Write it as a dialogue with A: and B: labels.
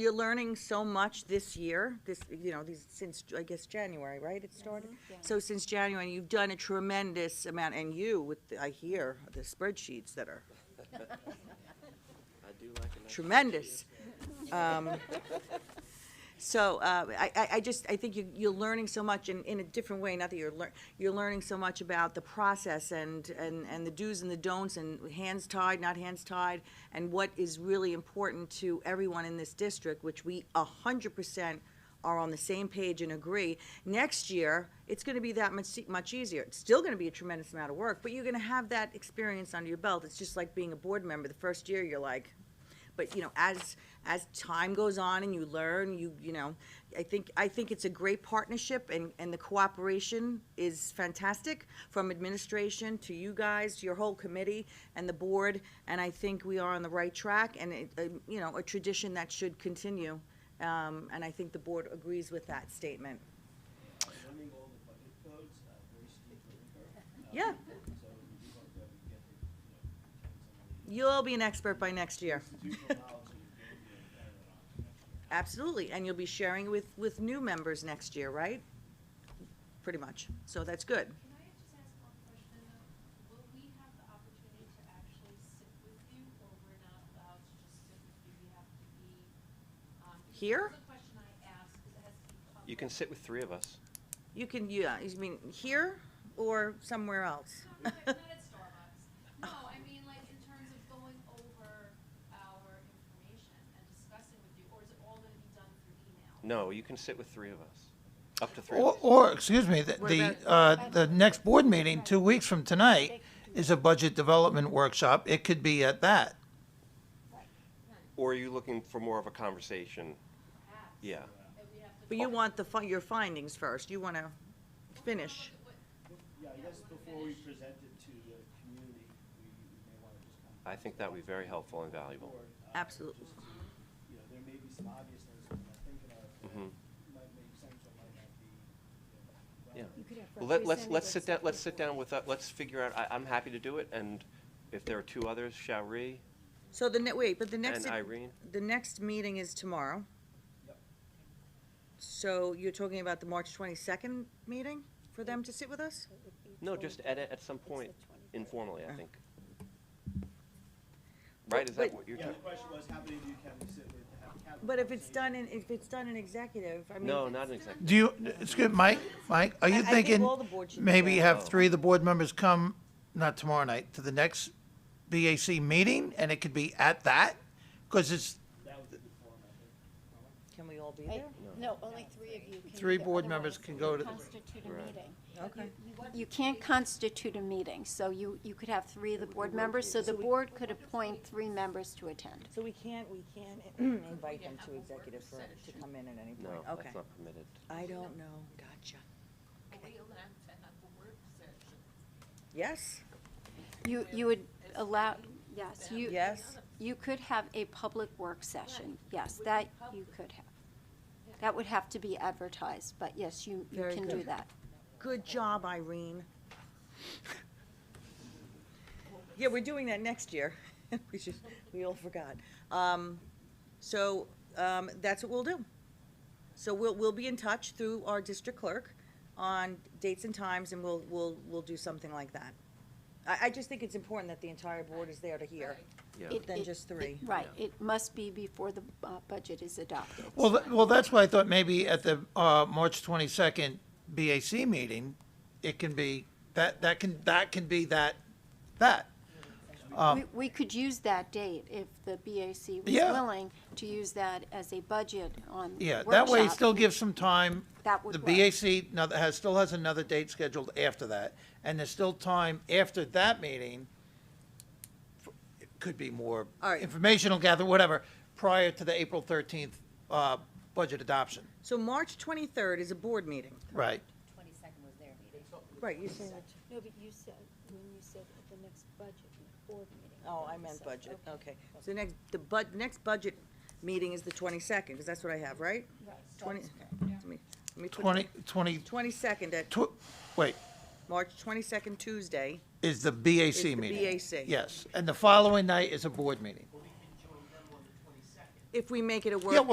A: You're learning so much this year, this, you know, these, since, I guess, January, right, it started? So since January, you've done a tremendous amount, and you with, the- I hear, the spreadsheets that are
B: I do like an extra
A: tremendous. Um, So uh, I, I- I just, I think you, you're learning so much in, in a different way, not that you're lear, you're learning so much about the process and, and, and the do's and the don'ts and hands tied, not hands tied, and what is really important to everyone in this district, which we a hundred percent are on the same page and agree. Next year, it's gonna be that much, much easier. It's still gonna be a tremendous amount of work, but you're gonna have that experience under your belt. It's just like being a board member. The first year, you're like, but you know as as time goes on and you learn you you know i think i think it's a great partnership and and the cooperation is fantastic from administration to you guys to your whole committee and the board and i think we are on the right track and it, uh, you know a tradition that should continue um, and i think the board agrees with that statement
C: running all the budget codes, uh, very steeply curved,
A: yeah
C: so we do hope that we get the, you know, some
A: you'll be an expert by next year
C: institutional knowledge and build the better on it next year.
A: Absolutely, and you'll be sharing with, with new members next year, right? Pretty much, so that's good.
D: Can I just ask one question? Will we have the opportunity to actually sit with you, or we're not allowed to just sit with you? We have to be, um. because
A: Here?
D: that was a question I asked, 'cause it has to be public.
B: You can sit with three of us.
A: You can, yeah, you mean here or somewhere else?
D: No, Not at not at Starbucks. No, I mean, like, in terms of going over our information and discussing with you, or is it all gonna be done through email?
B: No, you can sit with three of us, up to three of
E: Or,
B: us.
E: or, excuse me, the,
A: What
E: the,
A: about-
E: uh, the next board meeting, two weeks from tonight, is a budget development workshop. It could be at that.
B: Or are you looking for more of a conversation?
D: Perhaps,
B: Yeah.
D: that we have to.
A: But you want the, fi- your findings first, you want to finish.
C: Yeah, I guess before we present it to the community, we we may want to just kind of.
B: I think that would be very helpful and valuable.
C: Board, uh,
A: Absolutely.
C: just to, You know, there may be some obvious things that I'm thinking of
B: Mhm.
C: that might make sense or might not be, you know,
B: Yeah.
C: relevant.
F: You could have
B: Well, let, let's, let's
F: representatives
B: sit down,
F: from
B: let's
F: the
B: sit
F: board.
B: down with, uh, let's figure out, I, I'm happy to do it, and if there are two others, Shari
A: So the, ne- wait, but the next,
B: and Irene.
A: the next meeting is tomorrow.
C: Yep.
A: So you're talking about the March 22nd meeting for them to sit with us?
F: It would be
B: No,
F: told
B: just at, a- at some
F: it's
B: point
F: the 23rd.
B: informally, I
A: Uh.
B: think. Right, is that
A: But-
B: what you're
C: Yeah,
B: talking?
C: the question was, how many of you can we sit with to have? have a
A: But if it's
C: conversation?
A: done in, if it's done in executive, I mean.
B: No, not an executive.
E: Do you, excuse, Mike, Mike, are
A: I- I
E: you
A: think
E: thinking
A: all the board should be
E: maybe
A: there.
B: Oh.
E: have three of the board members come, not tomorrow night, to the next BAC meeting, and it could be at that? Because it's
C: That was the form, I think.
A: Can we all be
F: I-
A: there?
F: No, only three of you can.
E: Three
F: either,
E: board
F: otherwise
E: members can go to the-
F: Constitute a
B: Right.
F: meeting.
A: Okay.
F: You can't constitute a meeting, so you, you could have three of the board members, so the board could appoint three members to attend.
A: So we can't, we can't invite them to executive for, to come in at any
B: No,
A: point? Okay.
B: that's not permitted.
A: I don't know, gotcha.
G: Are we allowed to have a work session?
A: Yes,
F: You, you would allow, yes, you,
A: yes,
F: you could have a public work session, yes, that you could have. That would have to be advertised, but yes, you, you
A: Very
F: can do
A: good.
F: that.
A: good job, Irene. Yeah, we're doing that next year, we should, we all forgot. Um, so, um, that's what we'll do. So we'll, we'll be in touch through our district clerk on dates and times, and we'll, we'll, we'll do something like that. I, I just think it's important that the entire board is there to hear.
B: Yeah.
F: It-
A: Than
F: it-
A: just
F: it-
A: three.
F: Right, it must be before the uh, budget is adopted.
E: Well, th- well, that's why I thought maybe at the uh, March 22nd BAC meeting, it can be, that, that can, that can be that, that. Um,
F: We- We could use that date if the BAC was
E: Uh, Yeah.
F: willing to use that as a budget on
E: Yeah, that way it
F: workshop.
E: still gives some time.
F: That would
E: The
F: work.
E: BAC now that has, still has another date scheduled after that, and there's still time after that meeting. f- It Could be more
A: All right.
E: informational gather, whatever, prior to the April 13th uh, budget adoption,
A: So March twenty-third is a board meeting.
E: right?
G: Twenty-second was their meeting.
A: Right, you're saying,
H: No, but you said, when you said at the next budget board meeting.
A: oh, I meant budget, okay. So next, the bud, next budget meeting is the twenty-second, because that's what I have, right? Twenty, let me, let me put.
E: 20, 20,
A: Twenty-second at,
E: tw- wait,
A: March twenty-second Tuesday,
E: is the
A: It's
E: BAC
A: the
E: meeting.
A: BAC.
E: Yes, and the following night is a board meeting.
A: if we make it a work.
E: Yeah, well,